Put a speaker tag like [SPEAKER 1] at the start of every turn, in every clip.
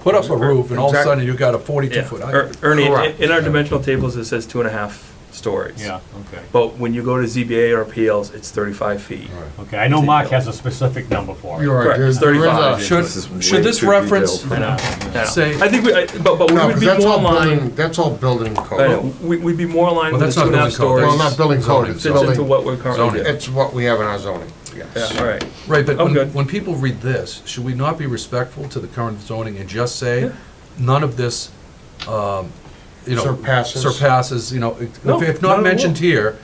[SPEAKER 1] Put up a roof and all of a
[SPEAKER 2] Exactly.
[SPEAKER 1] sudden you got a forty-two
[SPEAKER 3] Yeah.
[SPEAKER 1] foot
[SPEAKER 3] Er-
[SPEAKER 1] height.
[SPEAKER 3] Ernie,
[SPEAKER 2] Correct.
[SPEAKER 3] in our dimensional tables, it says two and a half stories.
[SPEAKER 4] Yeah, okay.
[SPEAKER 3] But when you go to ZBA or appeals, it's thirty-five feet.
[SPEAKER 4] Okay, I know Mark has a specific number for it.
[SPEAKER 2] You're right.
[SPEAKER 3] Correct,
[SPEAKER 2] there's-
[SPEAKER 3] it's
[SPEAKER 2] there is
[SPEAKER 3] 35.
[SPEAKER 2] a-
[SPEAKER 1] Should,
[SPEAKER 5] This is way
[SPEAKER 1] should this
[SPEAKER 5] too
[SPEAKER 1] reference
[SPEAKER 5] detailed.
[SPEAKER 3] I know, I know.
[SPEAKER 1] Say-
[SPEAKER 3] I think we, I- but, but we
[SPEAKER 2] No,
[SPEAKER 3] would
[SPEAKER 2] 'cause
[SPEAKER 3] be
[SPEAKER 2] that's
[SPEAKER 3] more
[SPEAKER 2] all
[SPEAKER 3] in line,
[SPEAKER 2] building, that's all building
[SPEAKER 3] I know,
[SPEAKER 2] code.
[SPEAKER 3] we, we'd be more in line
[SPEAKER 1] Well,
[SPEAKER 3] with the
[SPEAKER 1] that's
[SPEAKER 3] two
[SPEAKER 1] not
[SPEAKER 3] and a
[SPEAKER 1] building
[SPEAKER 3] half
[SPEAKER 1] code.
[SPEAKER 3] stories.
[SPEAKER 1] That's
[SPEAKER 2] Well, not building code, it's
[SPEAKER 3] Fits into
[SPEAKER 2] building,
[SPEAKER 3] what we're currently
[SPEAKER 1] Zoning.
[SPEAKER 3] doing.
[SPEAKER 2] it's what we have in our zoning, yes.
[SPEAKER 3] Yeah, all right.
[SPEAKER 1] Right, but
[SPEAKER 3] I'm
[SPEAKER 1] when,
[SPEAKER 3] good.
[SPEAKER 1] when people read this, should we not be respectful to the current zoning and just
[SPEAKER 3] Yeah.
[SPEAKER 1] say, none of this, um, you know.
[SPEAKER 2] Surpasses.
[SPEAKER 1] Surpasses, you know, if
[SPEAKER 3] No,
[SPEAKER 1] if
[SPEAKER 3] not at
[SPEAKER 1] not
[SPEAKER 3] all.
[SPEAKER 1] mentioned here,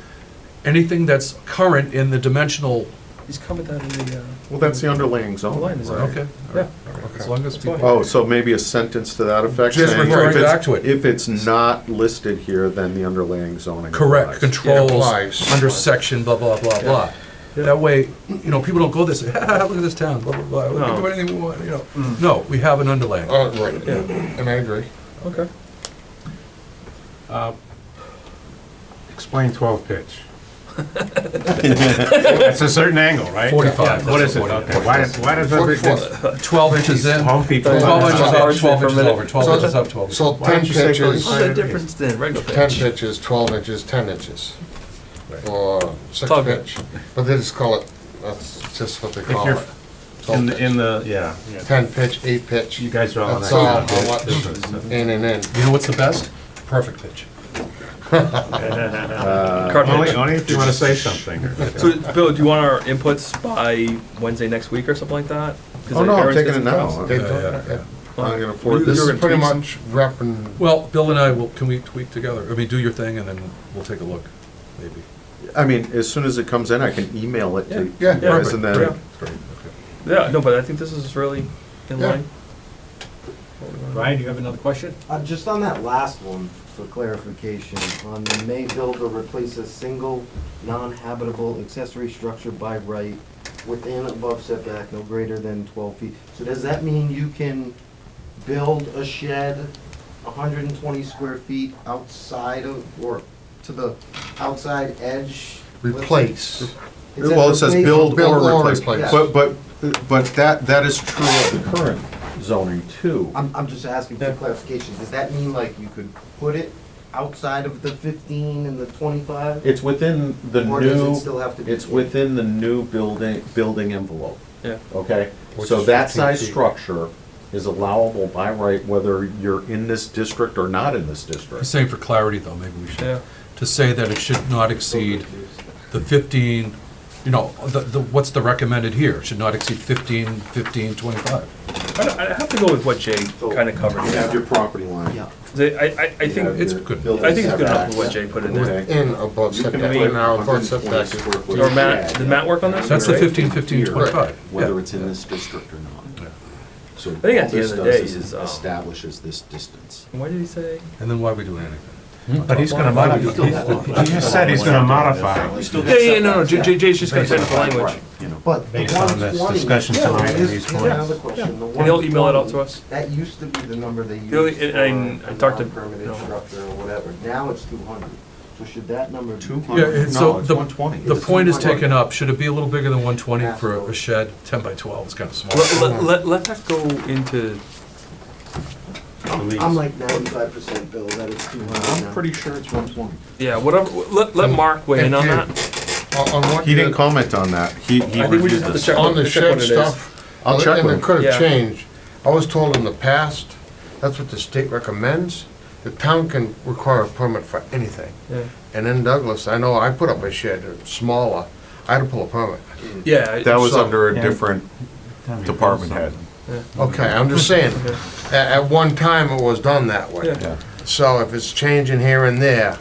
[SPEAKER 1] anything that's current in the dimensional,
[SPEAKER 3] He's coming down in the, uh.
[SPEAKER 5] Well, that's the underlying
[SPEAKER 3] The line
[SPEAKER 5] zone,
[SPEAKER 3] is
[SPEAKER 5] right?
[SPEAKER 1] okay? all
[SPEAKER 3] Yeah.
[SPEAKER 1] right, all right, As long as
[SPEAKER 3] That's fine.
[SPEAKER 1] people.
[SPEAKER 5] Oh, so maybe a sentence to that effect?
[SPEAKER 2] Just
[SPEAKER 5] saying if
[SPEAKER 1] referring
[SPEAKER 5] it's-
[SPEAKER 1] back to it.
[SPEAKER 5] If it's not listed here, then the underlying zoning.
[SPEAKER 1] Correct,
[SPEAKER 5] applies.
[SPEAKER 1] controls,
[SPEAKER 2] applies.
[SPEAKER 1] under section, blah, blah, blah, blah.
[SPEAKER 3] Yeah.
[SPEAKER 1] That way, you know, people don't go this, look at this town, blah, blah, blah, we can do
[SPEAKER 3] No. Mm.
[SPEAKER 1] anything we want, you know. No, we have an underlaying.
[SPEAKER 2] Uh, right,
[SPEAKER 3] Yeah.
[SPEAKER 2] and I agree.
[SPEAKER 3] Okay.
[SPEAKER 4] Explain 12 pitch. It's a certain angle, right?
[SPEAKER 1] 45.
[SPEAKER 4] What is it? Okay, Why why does
[SPEAKER 2] Foot-
[SPEAKER 4] everything,
[SPEAKER 2] foot.
[SPEAKER 1] Twelve inches in, twelve
[SPEAKER 4] home people?
[SPEAKER 1] inches up,
[SPEAKER 3] Sorry,
[SPEAKER 1] twelve
[SPEAKER 3] for a
[SPEAKER 1] inches
[SPEAKER 3] minute.
[SPEAKER 1] over, twelve
[SPEAKER 2] So
[SPEAKER 1] inches
[SPEAKER 2] the-
[SPEAKER 1] up, twelve. inches.
[SPEAKER 2] So
[SPEAKER 4] Why
[SPEAKER 2] ten
[SPEAKER 4] don't you say
[SPEAKER 2] pitches,
[SPEAKER 4] thirty-five?
[SPEAKER 3] What's the
[SPEAKER 4] Sorry.
[SPEAKER 3] difference then, regular
[SPEAKER 2] ten
[SPEAKER 3] pitch?
[SPEAKER 2] pitches, twelve inches, ten inches, or six
[SPEAKER 3] Tug.
[SPEAKER 2] pitch, but they just call it, that's just what they call
[SPEAKER 4] you're
[SPEAKER 2] it. Twelve
[SPEAKER 4] In the,
[SPEAKER 2] pitch.
[SPEAKER 4] in the, yeah. yeah.
[SPEAKER 2] Ten pitch, eight pitch,
[SPEAKER 4] You guys are all on
[SPEAKER 2] That's
[SPEAKER 4] that.
[SPEAKER 2] all.
[SPEAKER 4] kind of
[SPEAKER 2] I'll watch.
[SPEAKER 4] difference.
[SPEAKER 2] in and in.
[SPEAKER 1] You know what's the best? Perfect pitch.
[SPEAKER 5] Uh,
[SPEAKER 3] Card
[SPEAKER 4] Only,
[SPEAKER 3] pitch.
[SPEAKER 4] only Uh, if you want to say something.
[SPEAKER 3] So, Bill, do you want our inputs by Wednesday next week or something like that? 'Cause
[SPEAKER 5] Oh, no, I'm
[SPEAKER 3] Aaron's got
[SPEAKER 5] taking it
[SPEAKER 3] some
[SPEAKER 5] now.
[SPEAKER 3] problems.
[SPEAKER 5] I'm
[SPEAKER 2] They
[SPEAKER 5] I'm
[SPEAKER 2] don't-
[SPEAKER 1] yeah,
[SPEAKER 5] gonna afford
[SPEAKER 3] You're
[SPEAKER 2] This
[SPEAKER 5] this.
[SPEAKER 3] gonna
[SPEAKER 2] is pretty
[SPEAKER 3] tweak some-
[SPEAKER 2] much wrapping,
[SPEAKER 1] Well, Bill and I will, can we tweak together? I mean, do your thing and then we'll take a look, maybe.
[SPEAKER 5] I mean, as soon as it comes in, I can email it to you
[SPEAKER 2] Yeah. Yeah.
[SPEAKER 5] guys and
[SPEAKER 3] Yeah.
[SPEAKER 5] then.
[SPEAKER 1] Great, okay.
[SPEAKER 3] Yeah, no, but I think this is really in
[SPEAKER 2] Yeah.
[SPEAKER 3] line.
[SPEAKER 4] Ryan, you have another question?
[SPEAKER 6] Uh, just on that last one, for clarification, on the may build or replace a single non-habitable accessory structure by right within above setback no greater than twelve feet. So does that mean you can build a shed hundred and twenty square feet outside of, or to the outside edge?
[SPEAKER 2] replace.
[SPEAKER 6] Is that
[SPEAKER 5] Well, it says
[SPEAKER 6] replace?
[SPEAKER 5] build
[SPEAKER 2] Build
[SPEAKER 5] or
[SPEAKER 2] or
[SPEAKER 5] replace.
[SPEAKER 2] replace.
[SPEAKER 5] But, but, but that, that is true of the current zoning too.
[SPEAKER 6] I'm, I'm just asking for clarification, does that mean like you could put it outside of the fifteen and the twenty-five?
[SPEAKER 5] It's within the
[SPEAKER 6] Or does it
[SPEAKER 5] new,
[SPEAKER 6] still have to be?
[SPEAKER 5] it's within the new building, building envelope.
[SPEAKER 3] Yeah.
[SPEAKER 5] Okay,
[SPEAKER 2] Which
[SPEAKER 5] so
[SPEAKER 2] is
[SPEAKER 5] that
[SPEAKER 2] 15
[SPEAKER 5] size
[SPEAKER 2] feet.
[SPEAKER 5] structure is allowable by right whether you're in this district or not in this
[SPEAKER 1] I'm
[SPEAKER 5] district.
[SPEAKER 1] saying for clarity though, maybe we
[SPEAKER 3] Yeah.
[SPEAKER 1] should, to say that it should not exceed the fifteen, you know, the, the, what's the recommended here? Should not exceed fifteen, fifteen, twenty-five.
[SPEAKER 3] I don't- I have to go with what Jay kind of covered.
[SPEAKER 5] You have your property line.
[SPEAKER 6] Yeah.
[SPEAKER 3] I, I, I
[SPEAKER 5] You have
[SPEAKER 3] think,
[SPEAKER 1] it's
[SPEAKER 5] your
[SPEAKER 1] good.
[SPEAKER 5] building
[SPEAKER 3] I think it's good enough
[SPEAKER 5] setbacks.
[SPEAKER 3] with what Jay put in there.
[SPEAKER 5] Okay.
[SPEAKER 2] In above
[SPEAKER 5] You can
[SPEAKER 2] setback,
[SPEAKER 3] make
[SPEAKER 2] in our above
[SPEAKER 5] 120
[SPEAKER 2] setback.
[SPEAKER 5] square foot
[SPEAKER 3] Or Matt,
[SPEAKER 5] shed
[SPEAKER 3] did Matt work on this?
[SPEAKER 1] That's the
[SPEAKER 3] Right.
[SPEAKER 1] 15, 15,
[SPEAKER 5] here,
[SPEAKER 1] 25,
[SPEAKER 5] Whether
[SPEAKER 1] yeah.
[SPEAKER 5] it's in this district or not. So I
[SPEAKER 3] think at the end of the day is, um,
[SPEAKER 5] Establishes this distance.
[SPEAKER 3] Why did he say?
[SPEAKER 1] And then why are we doing anything?
[SPEAKER 4] But he's gonna modify, he just said he's gonna modify.
[SPEAKER 3] Yeah, yeah, no, no, Jay- Jay- Jay's just gonna send the language.
[SPEAKER 5] You know,
[SPEAKER 6] But the
[SPEAKER 4] Based on this
[SPEAKER 6] 120
[SPEAKER 4] discussion tonight and
[SPEAKER 6] is-
[SPEAKER 4] these
[SPEAKER 6] is another
[SPEAKER 4] points.
[SPEAKER 6] question. The
[SPEAKER 3] And he'll email it out
[SPEAKER 6] 120
[SPEAKER 3] to us.
[SPEAKER 6] That used to be the number they used
[SPEAKER 3] The only-
[SPEAKER 6] for
[SPEAKER 3] and- and I
[SPEAKER 6] a
[SPEAKER 3] talked to-
[SPEAKER 6] non-permitted
[SPEAKER 3] no.
[SPEAKER 6] structure or whatever. Now it's two hundred. So should that number be?
[SPEAKER 5] two
[SPEAKER 1] Yeah,
[SPEAKER 5] hundred,
[SPEAKER 1] and
[SPEAKER 5] no,
[SPEAKER 1] so
[SPEAKER 5] it's
[SPEAKER 1] the,
[SPEAKER 5] one twenty.
[SPEAKER 1] the point is taken up. Should it be a little bigger than one twenty for a
[SPEAKER 6] Absolutely.
[SPEAKER 1] shed? Ten by twelve is kind of small.
[SPEAKER 3] Let, let- let, let that go into,
[SPEAKER 6] I'm like ninety-five percent, Bill, that it's two hundred now.
[SPEAKER 5] I'm pretty sure it's one twenty.
[SPEAKER 3] yeah, whatever, let, let Mark weigh in on
[SPEAKER 2] Okay.
[SPEAKER 3] that.
[SPEAKER 2] On on what
[SPEAKER 5] He didn't
[SPEAKER 2] the-
[SPEAKER 5] comment on that. He, he
[SPEAKER 3] I think we
[SPEAKER 5] reviewed
[SPEAKER 3] just have to
[SPEAKER 5] this.
[SPEAKER 3] check.
[SPEAKER 2] On the
[SPEAKER 3] check what it
[SPEAKER 2] shed
[SPEAKER 3] is.
[SPEAKER 2] stuff.
[SPEAKER 5] I'll check
[SPEAKER 2] And
[SPEAKER 5] with
[SPEAKER 2] it
[SPEAKER 5] him.
[SPEAKER 2] could
[SPEAKER 3] Yeah.
[SPEAKER 2] have changed. I was told in the past, that's what the state recommends. The town can require a permit for anything.
[SPEAKER 3] Yeah.
[SPEAKER 2] And in Douglas, I know I put up a shed, uh, smaller, I had to pull a permit.
[SPEAKER 3] Yeah. I-
[SPEAKER 5] That was
[SPEAKER 2] So-
[SPEAKER 5] under a different department head.
[SPEAKER 2] Okay, I'm just saying, at, at one time it was done that way.
[SPEAKER 3] Yeah.
[SPEAKER 2] So if it's changing here and there,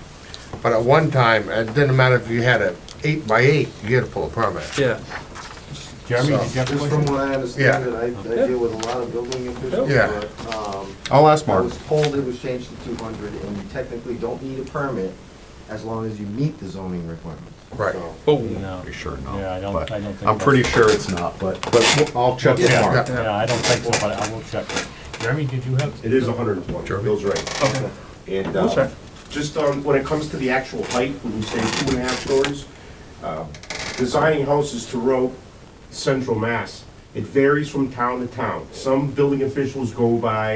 [SPEAKER 2] but at one time, it didn't matter if you had a eight by eight, you had to pull a permit.
[SPEAKER 3] Yeah,
[SPEAKER 4] Jeremy, did you have a
[SPEAKER 6] Just from
[SPEAKER 4] question?
[SPEAKER 6] what I understand, and I,
[SPEAKER 3] Yeah.
[SPEAKER 6] I deal with a lot of building officials,
[SPEAKER 2] Yeah.
[SPEAKER 6] but, um,
[SPEAKER 5] I'll ask
[SPEAKER 6] I
[SPEAKER 5] Mark.
[SPEAKER 6] was told it was changed to two hundred and you technically don't need a permit as long as you meet the zoning requirements.
[SPEAKER 2] Right.
[SPEAKER 6] So-
[SPEAKER 3] oh,
[SPEAKER 5] Pretty sure not.
[SPEAKER 4] Yeah, I don't-
[SPEAKER 5] but
[SPEAKER 4] I don't think
[SPEAKER 5] I'm
[SPEAKER 4] that's-
[SPEAKER 5] pretty sure it's not, but, but I'll check with
[SPEAKER 4] Yeah,
[SPEAKER 5] Mark.
[SPEAKER 4] Yeah, I don't think so, but I will check. Jeremy, did you have?
[SPEAKER 7] It is hundred and twenty,
[SPEAKER 1] Jeremy?
[SPEAKER 7] Bill's right.
[SPEAKER 3] okay,
[SPEAKER 7] And,
[SPEAKER 3] we'll check.
[SPEAKER 7] uh, just on, when it comes to the actual height, when we say two and a half stories, um, designing houses to row central mass, it varies from town to town. Some building officials go by